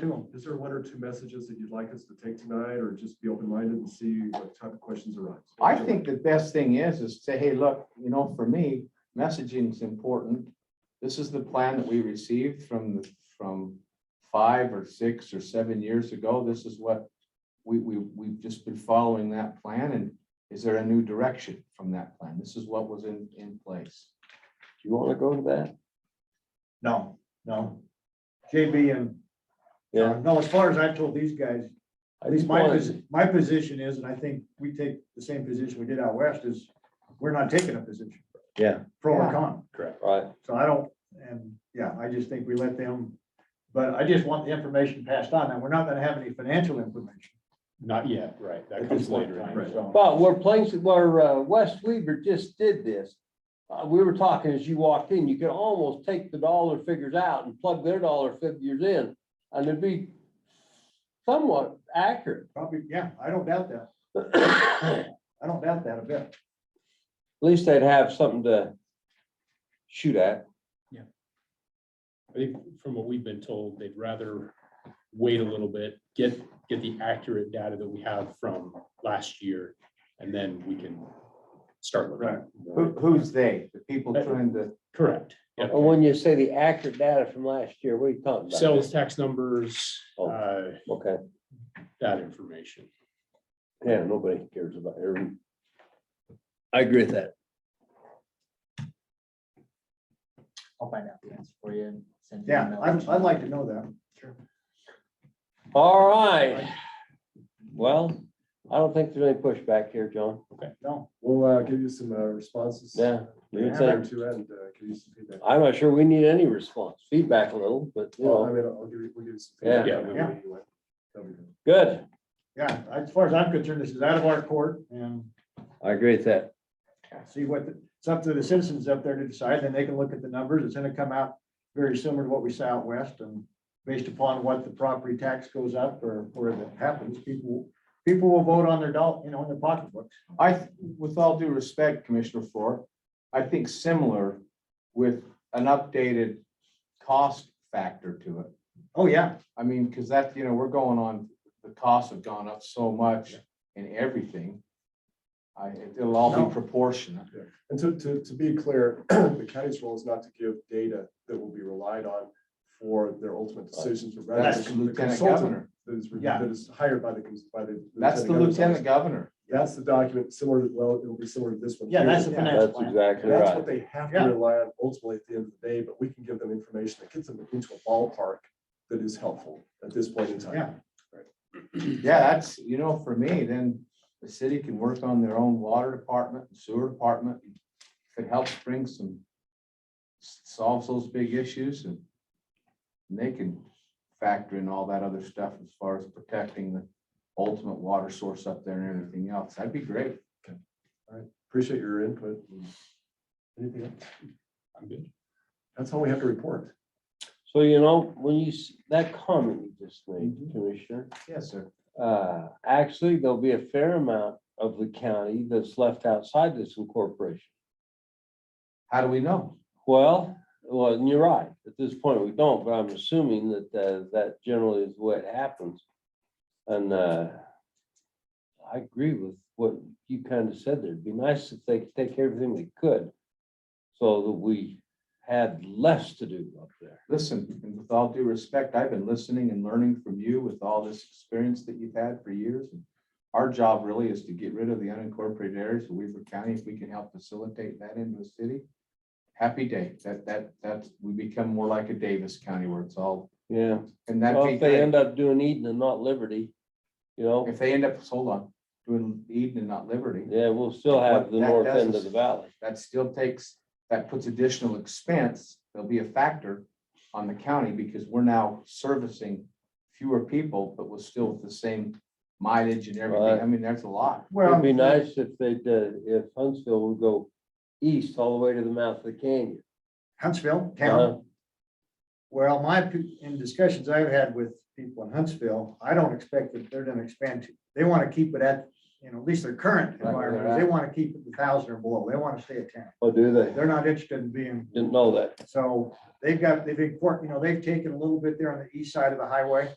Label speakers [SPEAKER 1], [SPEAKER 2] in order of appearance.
[SPEAKER 1] to them. Is there one or two messages that you'd like us to take tonight or just be open-minded and see what type of questions arise?
[SPEAKER 2] I think the best thing is, is say, hey, look, you know, for me, messaging is important. This is the plan that we received from, the from five or six or seven years ago. This is what we, we, we've just been following that plan and is there a new direction from that plan? This is what was in, in place.
[SPEAKER 3] Do you want to go to that?
[SPEAKER 4] No, no. JB and,
[SPEAKER 3] Yeah.
[SPEAKER 4] no, as far as I've told these guys,
[SPEAKER 3] I
[SPEAKER 4] at least
[SPEAKER 3] just
[SPEAKER 4] my,
[SPEAKER 3] wanted-
[SPEAKER 4] posi- my position is, and I think we take the same position we did out west, is we're not taking a position,
[SPEAKER 3] Yeah,
[SPEAKER 4] pro or
[SPEAKER 2] Yeah.
[SPEAKER 4] con.
[SPEAKER 3] correct. Right,
[SPEAKER 4] So I don't, and yeah, I just think we let them, but I just want the information passed on. And we're not gonna have any financial information.
[SPEAKER 5] Not yet, right, that
[SPEAKER 4] at
[SPEAKER 5] comes
[SPEAKER 4] this point
[SPEAKER 5] later.
[SPEAKER 4] in
[SPEAKER 5] in
[SPEAKER 4] time,
[SPEAKER 5] the-
[SPEAKER 4] so.
[SPEAKER 3] but where places, where uh, West Weaver just did this, uh, we were talking as you walked in, you could almost take the dollar figures out and plug their dollar figures in, and it'd be somewhat accurate.
[SPEAKER 4] Probably, yeah, I don't doubt that.
[SPEAKER 3] At
[SPEAKER 4] I don't doubt that a bit.
[SPEAKER 3] least they'd have something to shoot at.
[SPEAKER 5] I think from what we've been told, they'd rather wait a little bit, get, get the accurate data that we have from last year, and then we can start. looking
[SPEAKER 4] Right.
[SPEAKER 5] more.
[SPEAKER 2] Who, who's they? The people trying to,
[SPEAKER 5] Correct. Yep.
[SPEAKER 3] And when you say the accurate data from last year, what are you talking about?
[SPEAKER 5] Sales tax numbers,
[SPEAKER 3] Oh.
[SPEAKER 5] uh,
[SPEAKER 3] Okay,
[SPEAKER 5] that information.
[SPEAKER 3] yeah, nobody cares about every. I agree with that.
[SPEAKER 6] I'll find out the answer for you and send you. an
[SPEAKER 4] Yeah,
[SPEAKER 6] email.
[SPEAKER 4] I'd, I'd like to know that.
[SPEAKER 3] All right. Well, I don't think there's any pushback here, John.
[SPEAKER 4] No,
[SPEAKER 1] We'll uh, give you some uh, responses.
[SPEAKER 3] Yeah.
[SPEAKER 1] We have time to and uh, give you some feedback.
[SPEAKER 3] I'm not sure we need any response, feedback a little, but you
[SPEAKER 1] Well, I
[SPEAKER 3] know,
[SPEAKER 1] mean, I'll give you, we'll give you some.
[SPEAKER 3] Yeah.
[SPEAKER 1] feedback
[SPEAKER 4] Yeah.
[SPEAKER 1] anyway. That'll be good.
[SPEAKER 3] good.
[SPEAKER 4] yeah, as far as I'm concerned, this is out of our court and
[SPEAKER 3] I agree with that.
[SPEAKER 4] see what, the- it's up to the citizens up there to decide, then they can look at the numbers, it's gonna come out very similar to what we saw out west, and based upon what the property tax goes up or where that happens, people, people will vote on their doll, you know, in their pocketbooks.
[SPEAKER 2] I, th- with all due respect, Commissioner Ford, I think similar with an updated cost factor to it.
[SPEAKER 4] Oh, yeah,
[SPEAKER 2] I mean, because that, you know, we're going on, the costs have gone up so much in everything. I, it'll all
[SPEAKER 4] No.
[SPEAKER 2] be proportionate.
[SPEAKER 1] And to, to, to be clear, the county's role is not to give data that will be relied on for their ultimate decisions. but rather
[SPEAKER 2] That's
[SPEAKER 1] the
[SPEAKER 2] the lieutenant
[SPEAKER 1] consultant
[SPEAKER 2] governor.
[SPEAKER 1] That is, re-
[SPEAKER 4] Yeah.
[SPEAKER 1] that is hired by the, cons- by the.
[SPEAKER 2] That's the
[SPEAKER 1] governor's office.
[SPEAKER 2] lieutenant governor.
[SPEAKER 1] That's the document similar to, well, it'll be similar to this one.
[SPEAKER 4] yeah,
[SPEAKER 1] here.
[SPEAKER 4] that's the finance
[SPEAKER 3] That's
[SPEAKER 4] plan.
[SPEAKER 3] exactly
[SPEAKER 1] That's
[SPEAKER 3] right.
[SPEAKER 1] what they have to
[SPEAKER 4] Yeah.
[SPEAKER 1] rely on ultimately at the end of the day, but we can give them information that gets them into a ballpark that is helpful at this point in time.
[SPEAKER 4] Yeah.
[SPEAKER 2] Yeah, that's, you know, for me, then the city can work on their own water department, sewer department. Could help bring some, solves those big issues and they can factor in all that other stuff as far as protecting the ultimate water source up there and everything else. That'd be great.
[SPEAKER 1] Appreciate your input. Anything else?
[SPEAKER 5] I'm good.
[SPEAKER 1] That's all we have to report.
[SPEAKER 3] So you know, when you, s- that comment you just made, Commissioner,
[SPEAKER 2] Yes, sir.
[SPEAKER 3] uh, actually, there'll be a fair amount of the county that's left outside this incorporation.
[SPEAKER 2] How do we know?
[SPEAKER 3] Well, well, and you're right. At this point, we don't, but I'm assuming that, uh, that generally is what happens. And, uh, I agree with what you kind of said there. It'd be nice if they could take everything they could so that we had less to do up there.
[SPEAKER 2] Listen, and with all due respect, I've been listening and learning from you with all this experience that you've had for years. And Our job really is to get rid of the unincorporated areas of Weaver County. If we can help facilitate that into a city. Happy day. That, that, that's, we become more like a Davis County where it's all,
[SPEAKER 3] Yeah.
[SPEAKER 2] and that'd
[SPEAKER 3] Well,
[SPEAKER 2] be
[SPEAKER 3] if they
[SPEAKER 2] great.
[SPEAKER 3] end up doing Eden and not Liberty, you know,
[SPEAKER 2] If they end up, hold on, doing Eden and not Liberty,
[SPEAKER 3] yeah, we'll still have the
[SPEAKER 2] What that
[SPEAKER 3] north
[SPEAKER 2] does
[SPEAKER 3] end of
[SPEAKER 2] is-
[SPEAKER 3] the valley.
[SPEAKER 2] that still takes, that puts additional expense, there'll be a factor on the county because we're now servicing fewer people, but we're still with the same mileage and everything.
[SPEAKER 3] Right.
[SPEAKER 2] I mean, that's a lot.
[SPEAKER 3] It'd
[SPEAKER 4] Well,
[SPEAKER 3] be nice if they'd, uh, if Huntsville would go east all the way to the mouth of the canyon.
[SPEAKER 4] Huntsville,
[SPEAKER 3] Uh-huh.
[SPEAKER 4] town, well, my, pe- in discussions I've had with people in Huntsville, I don't expect that they're gonna expand to, they wanna keep it at, you know, at least their current
[SPEAKER 2] Right, where they're
[SPEAKER 4] environment, they wanna keep it a thousand or below, they wanna stay at ten.
[SPEAKER 3] Oh, do they?
[SPEAKER 4] They're not interested in being
[SPEAKER 3] Didn't know that.
[SPEAKER 4] So they've got, they've been, you know, they've taken a little bit there on the east side of the highway